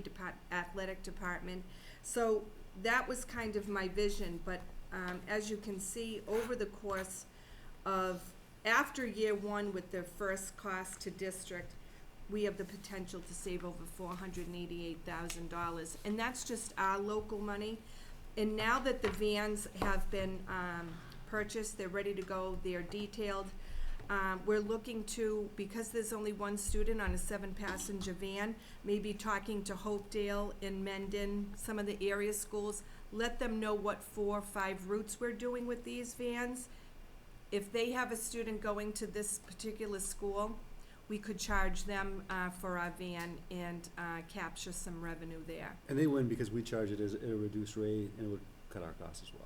depart, athletic department. So that was kind of my vision, but, um, as you can see, over the course of, after year one with the first cost to district, we have the potential to save over four hundred and eighty-eight thousand dollars, and that's just our local money. And now that the vans have been, um, purchased, they're ready to go, they're detailed, um, we're looking to, because there's only one student on a seven-passenger van, maybe talking to Hopedale and Mendon, some of the area schools, let them know what four, or five routes we're doing with these vans. If they have a student going to this particular school, we could charge them, uh, for our van and, uh, capture some revenue there. And they win because we charge it as at a reduced rate and it would cut our costs as well.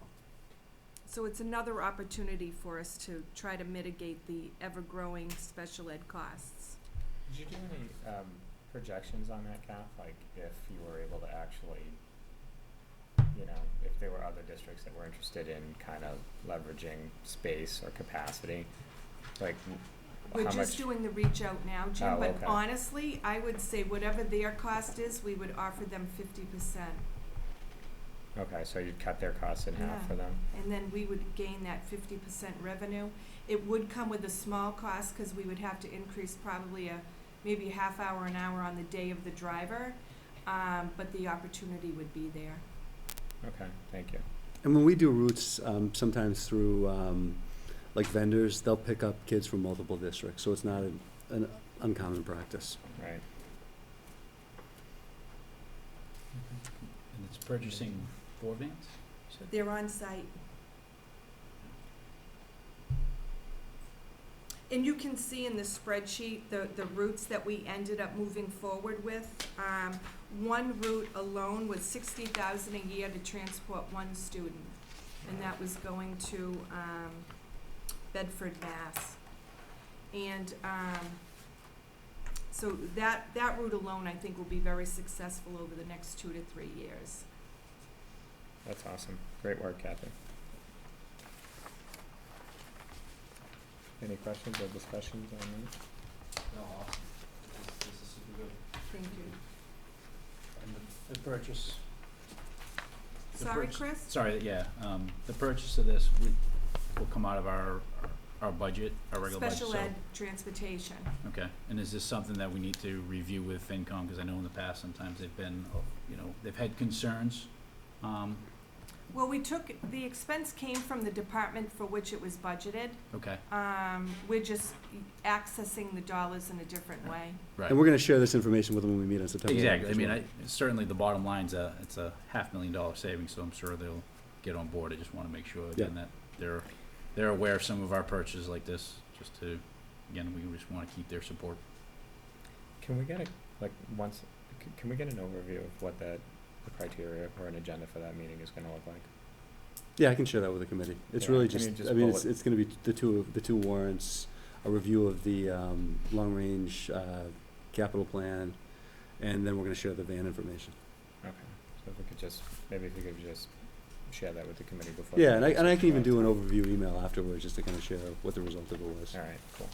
So it's another opportunity for us to try to mitigate the ever-growing special ed costs. Did you do any um, projections on that cap? Like if you were able to actually, you know, if there were other districts that were interested in kind of leveraging space or capacity, like w- We're how just much? doing the reach out now, Jim, Oh, but okay. honestly, I would say whatever their cost is, we would offer them fifty percent. Okay, so you'd cut their costs in half Yeah. for them? And then we would gain that fifty percent revenue. It would come with a small cost, cause we would have to increase probably a, maybe a half hour, an hour on the day of the driver. Um, but the opportunity would be there. Okay, thank you. And when we do routes, um, sometimes through, um, like vendors, they'll pick up kids from multiple districts, so it's not an, an uncommon practice. Right. And it's purchasing four vans? you said? They're on site. And you can see in the spreadsheet, the, the routes that we ended up moving forward with. Um, one route alone was sixty thousand a year to transport one student, and that was going to, um, Bedford, Mass. And, um, so that, that route alone, I think, will be very successful over the next two to three years. That's awesome. Great work, Kathy. Any questions or discussions on that? No, awesome. This, this is super good. Thank you. And the, the purchase, The Sorry, first- Chris? sorry, yeah, um, the purchase of this would, will come out of our, our budget, our regular budget, so. Special ed transportation. Okay, and is this something that we need to review with FinCom, cause I know in the past sometimes they've been, oh, you know, they've had concerns, um, Well, we took, the expense came from the department for which it was budgeted. okay, Um, we're just accessing the dollars in a different way. right. And we're gonna share this information with them when we meet on September Exactly, eleventh I as mean, well. I, certainly the bottom line's a, it's a half million dollar savings, so I'm sure they'll get on board, I just wanna make sure again that they're, they're aware of some of our purchases like this, just to, again, we just wanna keep their support. Can we get a, like, once, c- can we get an overview of what that, the criteria or an agenda for that meeting is gonna look like? Yeah, I can share that with the committee. It's Yeah, really can you just, just I mean, it's, bullet- it's gonna be the two, of- the two warrants, a review of the, um, long-range, uh, capital plan, and then we're gonna share the van information. Okay, so if we could just, maybe if you could just share that with the committee before. the Yeah, and I, next and I can even do meeting. an overview email afterwards, just to kinda share what the result of it was. All right, cool.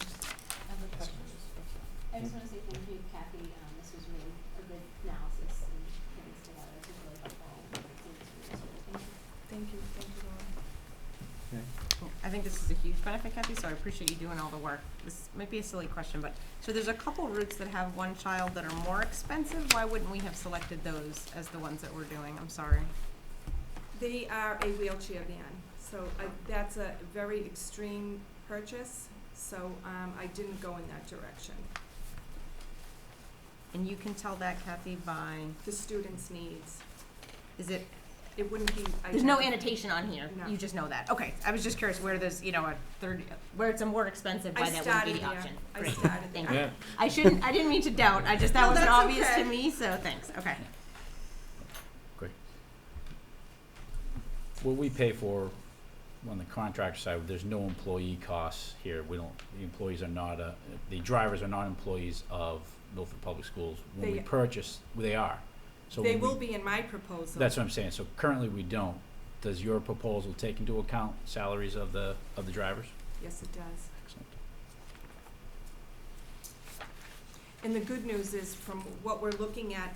I have a question. I just wanna say thank you, Kathy, um, this was really a good analysis and putting this together, this was really helpful. and I think it's really useful. Thank you. Thank you, thank you, Laura. I think this is a huge benefit, Kathy, so I appreciate you doing all the work. This might be a silly question, but, so there's a couple routes that have one child that are more expensive. Why wouldn't we have selected those as the ones that we're doing? I'm sorry. They are a wheelchair van, so I, that's a very extreme purchase, so, um, I didn't go in that direction. And you can tell that, Kathy, by, The students' needs, is it, it wouldn't be. there's no identical. annotation on here. No. You just know that. Okay, I was just curious where there's, you know, a third, where it's a more expensive, I why that wouldn't started be the there. option. I Great. started Thank there. you. I shouldn't, I didn't mean to doubt. I just, that No, wasn't that's obvious okay. to me, so thanks. Okay. What we pay for on the contractor side, there's no employee costs here, we don't, the employees are not, uh, the drivers are not employees of Milford Public Schools. When we They- purchase, they are, so They when we- will be in my proposal. That's what I'm saying, so currently we don't. Does your proposal take into account salaries of the, of the drivers? Yes, it does. Excellent. And the good news is, from what we're looking at